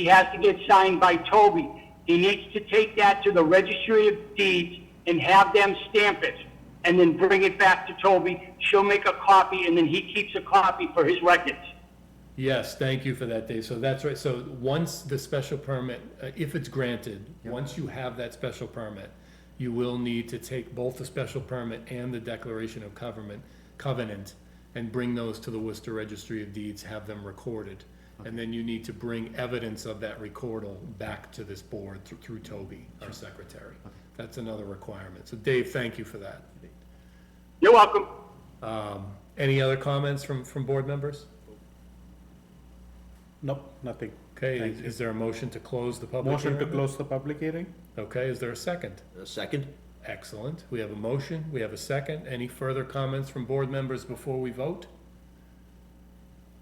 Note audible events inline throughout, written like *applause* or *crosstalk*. he has to get signed by Toby. He needs to take that to the registry of deeds and have them stamp it, and then bring it back to Toby. She'll make a copy, and then he keeps a copy for his records. Yes, thank you for that, Dave. So that's right. So once the special permit, uh, if it's granted, once you have that special permit, you will need to take both the special permit and the declaration of covenant, covenant, and bring those to the Worcester Registry of Deeds, have them recorded. And then you need to bring evidence of that recordal back to this board through, through Toby, our secretary. That's another requirement. So Dave, thank you for that. You're welcome. Um, any other comments from, from board members? Nope, nothing. Okay, Thank is is there a motion to close the public hearing? Motion to close the public hearing? Okay, is there a second? A second? Excellent. We have a motion, we have a second. Any further comments from board members before we vote?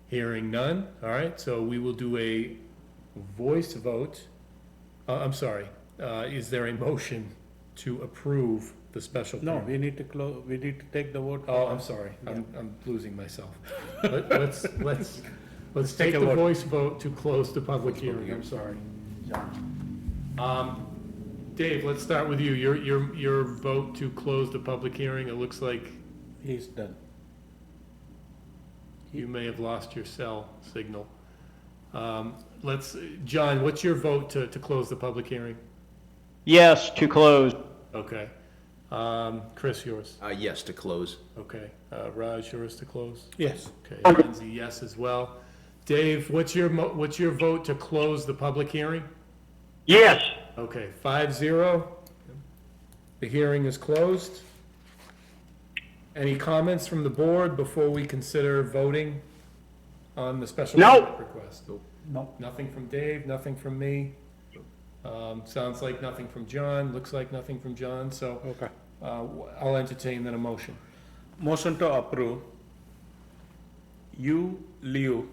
Hearing none. All right, so we will do a voice vote. Uh, I'm sorry, uh, is there a motion to approve the special No, permit? we need to close, we need to take the vote. Oh, I'm sorry, I'm, I'm losing myself. *laughs* Let- Let's, let's, let's take take a the vote. voice vote to close the public hearing, I'm sorry. Um, Dave, let's start with you, your, your, your vote to close the public hearing, it looks like He's done. you may have lost your cell signal. Um, let's, John, what's your vote to, to close the public hearing? Yes, to close. Okay, um, Chris, yours, Uh, yes, to close. okay, uh, Raj, yours to close? Yes, Okay, John's a yes as well. Dave, what's your, mo- what's your vote to close the public hearing? Yes, Okay, five zero. The hearing is closed. Any comments from the board before we consider voting on the special No. permit request? no, Nothing from Dave, nothing from me. Um, Sounds like nothing from John, looks like nothing from John, so okay. uh, I'll entertain then a motion. Motion to approve Yu Liu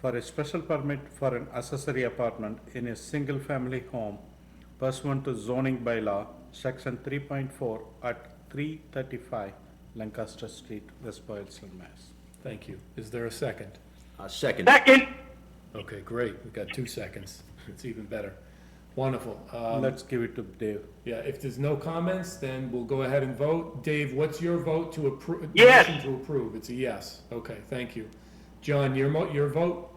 for a special permit for an accessory apartment in a single-family home pursuant to zoning bylaw, section three point four at three thirty-five Lancaster Street, West Boylston, Mass. Thank you. Is there a second? A Uh, second? second. Okay, great. We've got two seconds. It's even better. Wonderful. Um, Let's give it to Dave. yeah, if there's no comments, then we'll go ahead and vote. Dave, what's your vote to approve? Yes. To approve. It's a yes. Okay, thank you. John, your mo, your vote?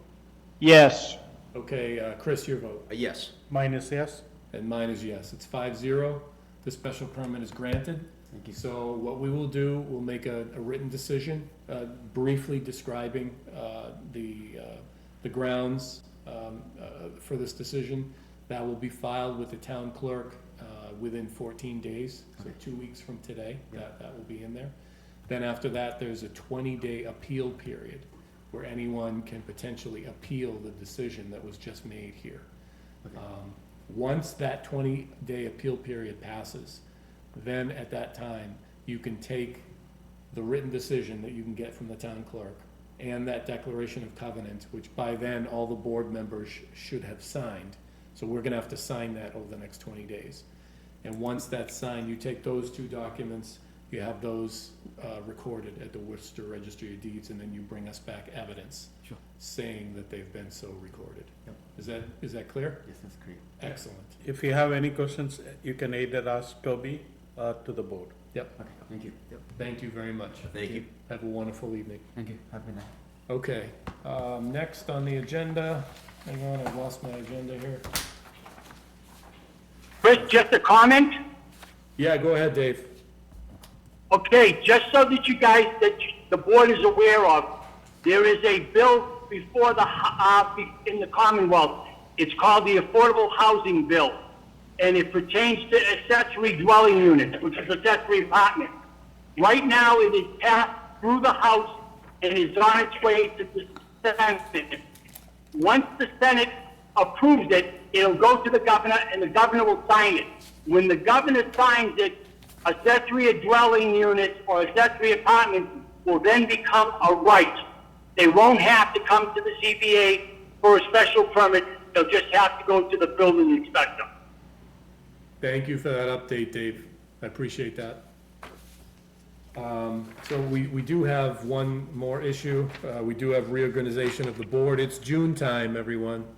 Yes, Okay, uh, Chris, your vote? A yes. Minus yes? And mine is yes. It's five zero. The special permit is granted. Thank you. So what we will do, we'll make a, a written decision, uh, briefly describing, uh, the, uh, the grounds, um, uh, for this decision. That will be filed with the town clerk, uh, within fourteen days, so two weeks from today, that, that will be in there. Then after that, there's a twenty-day appeal period, where anyone can potentially appeal the decision that was just made here. Um, Once that 20-day appeal period passes, then at that time, you can take the written decision that you can get from the town clerk and that declaration of covenant, which by then, all the board members sh- should have signed. So we're gonna have to sign that over the next 20 days. And once that's signed, you take those two documents, you have those uh, recorded at the Worcester Registry of Deeds, and then you bring us back evidence Sure. saying that they've been so recorded. Yep. Is that, is that clear? Yes, that's great. Excellent. If you have any questions, you can either ask Toby or to the board. Okay, thank you. Yep. Thank you very much. Thank you. Have a wonderful evening. Thank you. Have a good night. Okay, um, next on the agenda, hang on, I've lost my agenda here. Chris, just a comment? Yeah, go ahead, Dave. Okay, just so that you guys, that you- the board is aware of, there is a bill before the, ho- uh, be- in the Commonwealth. It's called the Affordable Housing Bill, and it pertains to accessory dwelling units, which is accessory apartment. Right now, it is passed through the House and is on its way to the Senate. Once the Senate approves it, it'll go to the governor, and the governor will sign it. When the governor signs it, accessory dwelling units or accessory apartments will then become a right. They won't have to come to the CBA for a special permit, they'll just have to go to the building inspector. Thank you for that update, Dave. I appreciate that. Um, so we, we do have one more issue. Uh, we do have reorganization of the board. It's June time, everyone.